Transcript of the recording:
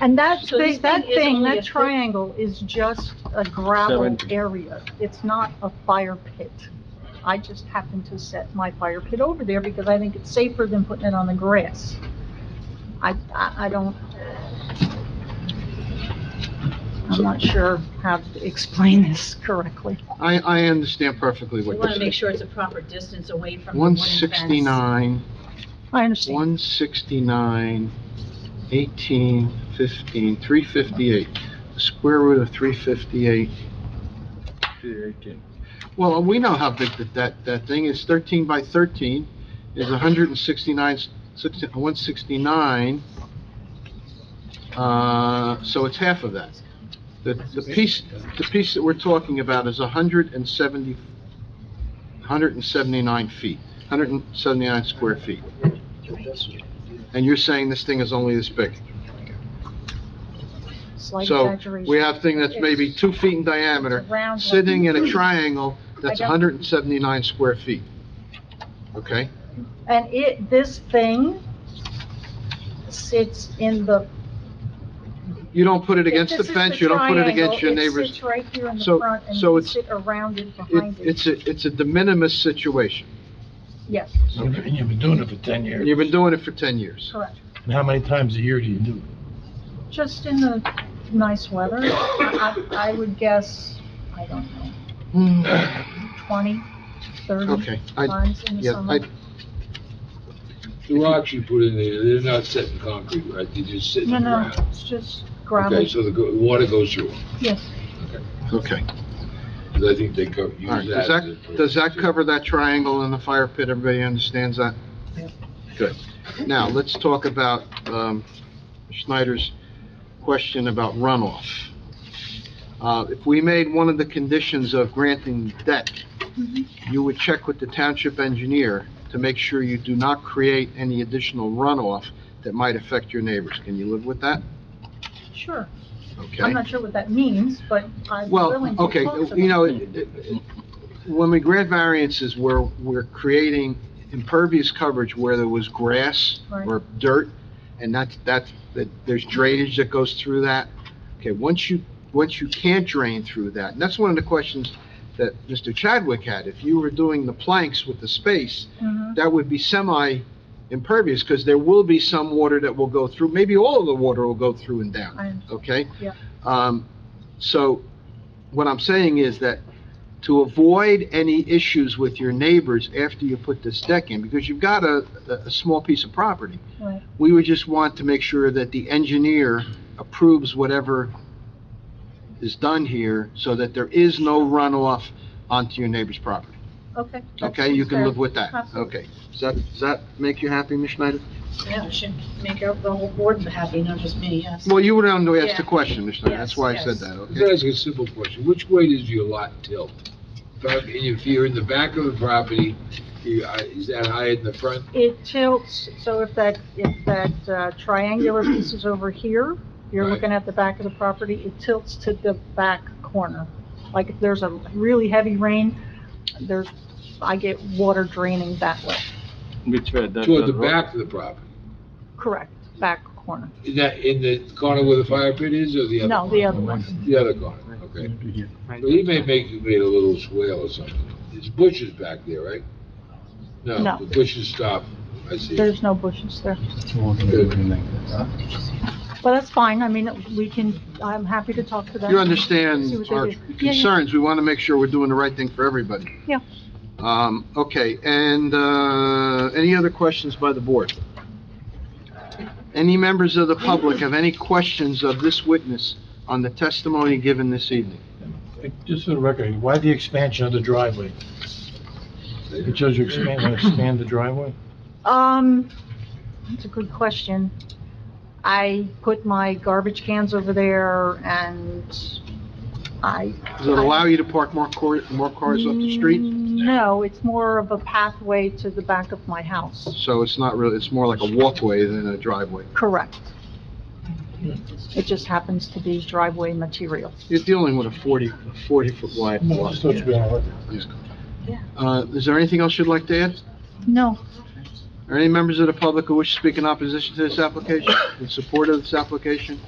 And that, So this thing- that thing is thing, only a that foot- triangle is just a gravel Seventy. area. It's not a fire pit. I just happen to set my fire pit over there because I think it's safer than putting it on the grass. I, I, I don't, I'm not sure how to explain this correctly. I, I understand perfectly We what want to you're make saying. sure it's a proper distance away from the One wooden fence. sixty-nine, I understand. one sixty-nine, eighteen, fifteen, three fifty-eight, the square root of three fifty-eight. Well, we know how big that, that, that thing is, thirteen by thirteen is a hundred and sixty-nine, sixty, one sixty-nine. Uh, so it's half of that. The, the piece, the piece that we're talking about is a hundred and seventy, hundred and seventy-nine feet, hundred and seventy-nine square feet. And you're saying this thing is only this big? Slight So, exaggeration. we have thing that's maybe two feet in diameter, It's a round sitting in one. a triangle that's I got- hundred and seventy-nine square feet. Okay? And it, this thing sits in the You don't put it against If the this is fence, you don't put it triangle, against your it neighbor's. sits right here in the So- front and so you it's- sit around it It, behind it. it's a, it's a de minimis situation. Yes, And you've been doing it for 10 And years. you've been doing it for ten years. correct. And how many times a year do you do it? Just in the nice weather, I, I I would guess, I don't know, twenty, thirty Okay, I, times in the yeah, summer. I, The rocks you put in there, they're not set in concrete, right? They just sit in No, the no, ground. it's just gravel, Okay, so the go- the water goes through, yes. okay. because I think they co- use All right, that. does that, does that cover that triangle in the fire pit? Everybody understands that? Good. Now, let's talk about, um, Schneider's question about runoff. Uh, if we made one of the conditions of granting debt, Mm-hmm. you would check with the township engineer to make sure you do not create any additional runoff that might affect your neighbors. Can you live with that? Sure. I'm Okay? not sure what that means, but I'm willing Well, to talk okay, to you them. know, it- it- when we grant variances, we're, we're creating impervious coverage where there was grass Right. or dirt, and that's, that's, that, there's drainage that goes through that. Okay, once you, once you can't drain through that, and that's one of the questions that Mr. Chadwick had, if you were doing the planks with the space, Mhm. that would be semi-impervious, because there will be some water that will go through, maybe all of the water will go through and down I- okay? Yeah. Um, so, what I'm saying is that to avoid any issues with your neighbors after you put this deck in, because you've got a, a, a small piece of property. Right. We would just want to make sure that the engineer approves whatever is done here, so that there is no runoff onto your neighbor's property. Okay. that Okay, you seems can fair. live with that, Absolutely. okay? Does that, does that make you happy, Ms. Schneider? Yeah, it should make out the whole board happy, not just me, yes. Well, you were the one who asked the Yeah. question, Ms. Schneider, that's Yes, why I yes. said that, Let me okay? ask you a simple question. Which way does your lot tilt? Back- If you're in the back of the property, you- I- is that higher in the front? It tilts, so if that, if that uh, triangular piece is over here, you're Right. looking at the back of the property, it tilts to the back corner. Like if there's a really heavy rain, there's, I get water draining that way. Which way? That- Toward the road? back of the property? Correct, back corner. Is that in the corner where the fire pit is or the other? No, corner? the other one. The other corner, okay. But he may make, you made a little swale or something. There's bushes back there, right? No. No, the bushes stop, I see. There's no bushes there. Well, But that's fine, I mean, we can, I'm happy to talk to them. You See understand what they our do. Yeah, yeah. concerns, we want to make sure we're doing the right thing for everybody. Yeah. Um, okay, and, uh, any other questions by the board? Any members of the public have any questions of this witness on the testimony given this evening? Just for the record, why the expansion of the driveway? Because you expand, want to expand the driveway? Um, that's a good question. I put my garbage cans over there and I. Does it allow you to park more cor, more cars up the Mm. street? No, it's more of a pathway to the back of my house. So it's not really, it's more like a walkway than a driveway. Correct. It just happens to be driveway material. You're dealing with a 40 40-foot wide No, I lot. thought you were gonna let- Uh, is there anything else you'd like to add? No, Are any members of the public who wish to speak in opposition to this application, in support of this application?